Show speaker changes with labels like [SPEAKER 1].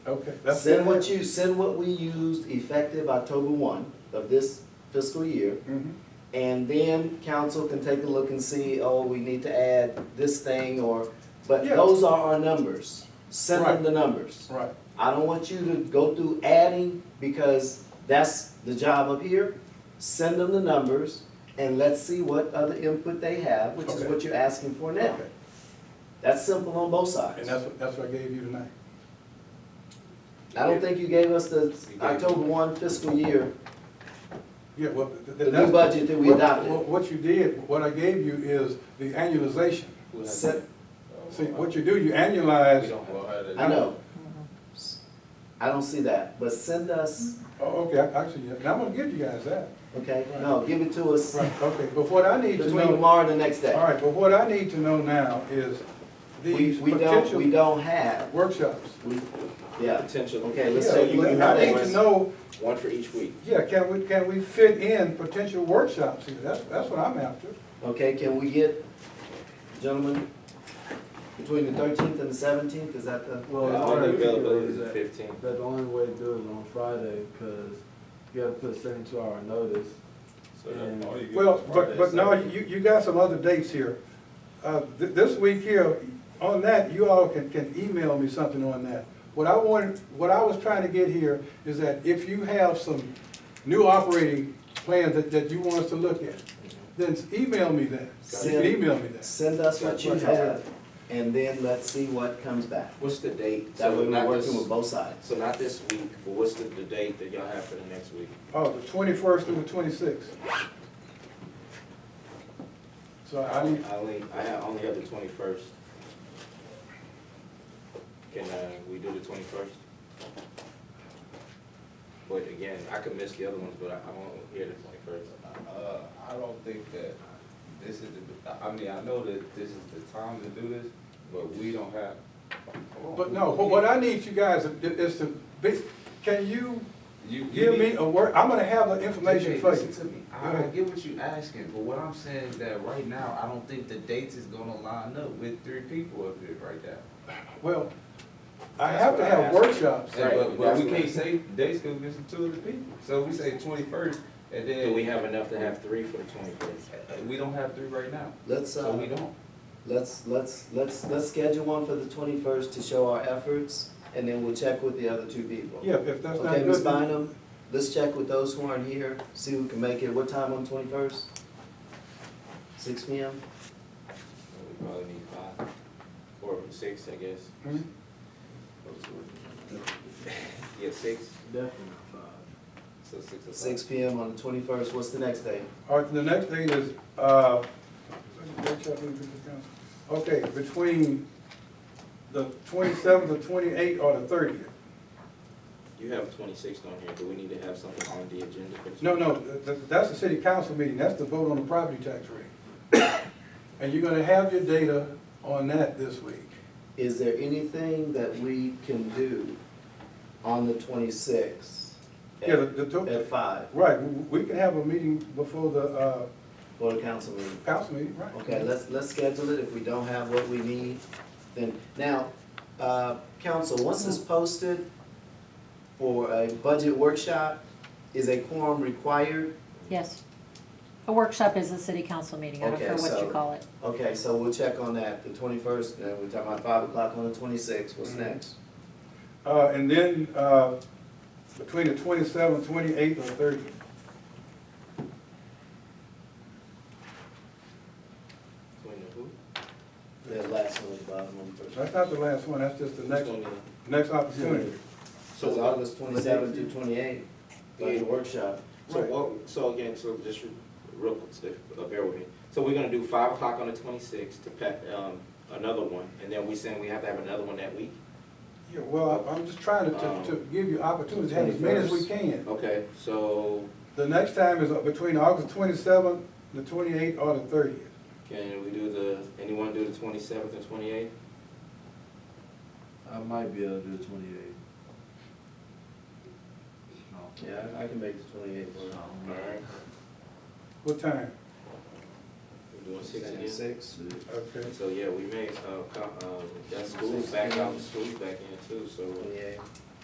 [SPEAKER 1] Okay, that's.
[SPEAKER 2] Send what you, send what we used effective October one of this fiscal year.
[SPEAKER 1] Mhm.
[SPEAKER 2] And then council can take a look and see, oh, we need to add this thing or, but
[SPEAKER 1] Yeah.
[SPEAKER 2] those are our numbers. Send them
[SPEAKER 1] Right.
[SPEAKER 2] the numbers.
[SPEAKER 1] Right,
[SPEAKER 2] I don't want you to go through adding because that's the job up here. Send them the numbers and let's see what other input they have, which is
[SPEAKER 1] Okay.
[SPEAKER 2] what you're asking for now.
[SPEAKER 1] okay,
[SPEAKER 2] That's simple on both sides.
[SPEAKER 1] and that's what, that's what I gave you tonight.
[SPEAKER 2] I don't think you gave us the
[SPEAKER 1] gave-
[SPEAKER 2] October one fiscal year,
[SPEAKER 1] Yeah, well. th- th-
[SPEAKER 2] the new
[SPEAKER 1] that's-
[SPEAKER 2] budget that we
[SPEAKER 1] what-
[SPEAKER 2] adopted.
[SPEAKER 1] what- What you did, what I gave you is the annualization.
[SPEAKER 2] Set-
[SPEAKER 1] See, what you do, you annualize.
[SPEAKER 2] I know.
[SPEAKER 1] Mm-hmm.
[SPEAKER 2] I don't see that, but send us,
[SPEAKER 1] Oh, okay, I- actually, yeah, and I'm gonna give you guys that.
[SPEAKER 2] okay, no, give it to us
[SPEAKER 1] Mm-hmm. Right, okay, but what I need to
[SPEAKER 2] between
[SPEAKER 1] know,
[SPEAKER 2] tomorrow and the next
[SPEAKER 1] all
[SPEAKER 2] day.
[SPEAKER 1] right, but what I need to know now is
[SPEAKER 2] We,
[SPEAKER 1] these
[SPEAKER 2] we don't, we
[SPEAKER 1] potential
[SPEAKER 2] don't have,
[SPEAKER 1] workshops.
[SPEAKER 2] we, yeah,
[SPEAKER 3] Potential.
[SPEAKER 2] okay, let's
[SPEAKER 1] Yeah,
[SPEAKER 2] say you
[SPEAKER 1] let-
[SPEAKER 2] can
[SPEAKER 1] I
[SPEAKER 2] have
[SPEAKER 1] need to
[SPEAKER 2] one.
[SPEAKER 1] know,
[SPEAKER 3] One for each week.
[SPEAKER 1] yeah, can we, can we fit in potential workshops here? That's, that's what I'm after.
[SPEAKER 2] Okay, can we get, gentlemen, between the thirteenth and the seventeenth, is that the?
[SPEAKER 4] Well,
[SPEAKER 3] That's
[SPEAKER 4] it's
[SPEAKER 3] when the
[SPEAKER 4] already
[SPEAKER 3] availability
[SPEAKER 4] figured
[SPEAKER 3] is at
[SPEAKER 4] that,
[SPEAKER 3] fifteen.
[SPEAKER 4] that the only way to do it is on Friday, because you gotta put a seventy-two hour notice. And-
[SPEAKER 1] Well, but, but no, you, you got some other dates here. Uh, th- this week here, on that, you all can, can email me something on that. What I wanted, what I was trying to get here is that if you have some new operating plans that, that you want us to look at, then email me that. You can email me that.
[SPEAKER 2] Send us what you
[SPEAKER 1] Right.
[SPEAKER 2] have, and then let's see what comes back.
[SPEAKER 3] What's the date?
[SPEAKER 2] That
[SPEAKER 3] So
[SPEAKER 2] way we're
[SPEAKER 3] not this-
[SPEAKER 2] working with both sides.
[SPEAKER 3] So not this week, but what's the, the date that y'all have for the next week?
[SPEAKER 1] Oh, the twenty-first through the twenty-sixth. So I need,
[SPEAKER 3] I only, I have, only have the twenty-first. Can, uh, we do the twenty-first? But again, I could miss the other ones, but I, I won't hear the twenty-first.
[SPEAKER 5] Uh, I don't think that this is the, I mean, I know that this is the time to do this, but we don't have.
[SPEAKER 1] but no, but what I need you guys i- is to, bas- can you
[SPEAKER 5] You
[SPEAKER 1] give me a word, I'm gonna have the information
[SPEAKER 5] Okay,
[SPEAKER 1] for you.
[SPEAKER 5] Listen to me, I, I get what you asking, but what I'm saying is that right now, I don't think the dates is gonna line up with three people up here right now.
[SPEAKER 1] Well, I
[SPEAKER 5] That's
[SPEAKER 1] have to
[SPEAKER 5] what I
[SPEAKER 1] have
[SPEAKER 5] asked.
[SPEAKER 1] workshops.
[SPEAKER 5] And
[SPEAKER 3] Right,
[SPEAKER 5] but, but we
[SPEAKER 3] that's
[SPEAKER 5] can't
[SPEAKER 3] what-
[SPEAKER 5] say dates because it's two of the people, so we say twenty-first, and then.
[SPEAKER 3] Do we have enough to have three for the twenty-first?
[SPEAKER 5] Uh, We don't have three right now,
[SPEAKER 2] Let's,
[SPEAKER 5] so we
[SPEAKER 2] uh,
[SPEAKER 5] don't.
[SPEAKER 2] let's, let's, let's, let's schedule one for the twenty-first to show our efforts, and then we'll check with the other two people.
[SPEAKER 1] Yeah, if that's not
[SPEAKER 2] Okay, Ms.
[SPEAKER 1] good. then-
[SPEAKER 2] Bynum, let's check with those who aren't here, see who can make it. What time on twenty-first? Six P M?
[SPEAKER 3] We probably need five, or six, I guess.
[SPEAKER 1] Mhm.
[SPEAKER 3] Yeah, six,
[SPEAKER 4] Definitely not five.
[SPEAKER 3] so six o'clock.
[SPEAKER 2] Six P M on the twenty-first. What's the next day?
[SPEAKER 1] All right, the next thing is, uh, workshop meeting with the council. okay, between the twenty-seventh, the twenty-eighth, or the thirtieth.
[SPEAKER 3] You have twenty-sixth on here, but we need to have something on the agenda for the.
[SPEAKER 1] No, no, th- th- that's the city council meeting, that's the vote on the property tax rate. And you're gonna have your data on that this week.
[SPEAKER 2] Is there anything that we can do on the twenty-sixth?
[SPEAKER 1] Yeah, the, the, to-
[SPEAKER 2] At five,
[SPEAKER 1] right, w- we can have a meeting before the, uh,
[SPEAKER 2] for the council meeting?
[SPEAKER 1] council meeting, right?
[SPEAKER 2] Okay, let's, let's schedule it. If we don't have what we need, then, now, uh, council, once it's posted for a budget workshop, is a quorum required?
[SPEAKER 6] Yes. A workshop is a city council meeting, I don't
[SPEAKER 2] Okay,
[SPEAKER 6] care what
[SPEAKER 2] so-
[SPEAKER 6] you call it.
[SPEAKER 2] Okay, so we'll check on that, the twenty-first, and we're talking about five o'clock on the twenty-sixth, what's
[SPEAKER 1] Mhm.
[SPEAKER 2] next?
[SPEAKER 1] Uh, and then, uh, between the twenty-seventh, twenty-eighth, or thirtieth.
[SPEAKER 3] Between the who?
[SPEAKER 2] The last one, was bottom one first.
[SPEAKER 1] That's not the last one, that's just the next,
[SPEAKER 3] Between the-
[SPEAKER 1] next opportunity.
[SPEAKER 2] So it's
[SPEAKER 3] So,
[SPEAKER 2] August twenty-seventh through twenty-eighth, budget workshop.
[SPEAKER 3] so what, so again, so just real, uh, bear with me. So we're gonna do five o'clock on the twenty-sixth to pack, um, another one, and then we saying we have to have another one that week?
[SPEAKER 1] Yeah, well, I- I'm just trying to, to, to give you opportunities, to have as many as we can.
[SPEAKER 3] Okay, so
[SPEAKER 1] The next time is uh, between August twenty-seventh, the twenty-eighth, or the thirtieth.
[SPEAKER 3] can we do the, anyone do the twenty-seventh and twenty-eighth?
[SPEAKER 4] I might be able to do twenty-eight. No.
[SPEAKER 2] Yeah, I can make the twenty-eighth work.
[SPEAKER 3] All right,
[SPEAKER 1] What time?
[SPEAKER 3] we're doing six again.
[SPEAKER 2] Six.
[SPEAKER 1] Okay.
[SPEAKER 3] So, yeah, we may, uh, co- um, that's school back out, school back in too, so
[SPEAKER 2] Twenty-eighth.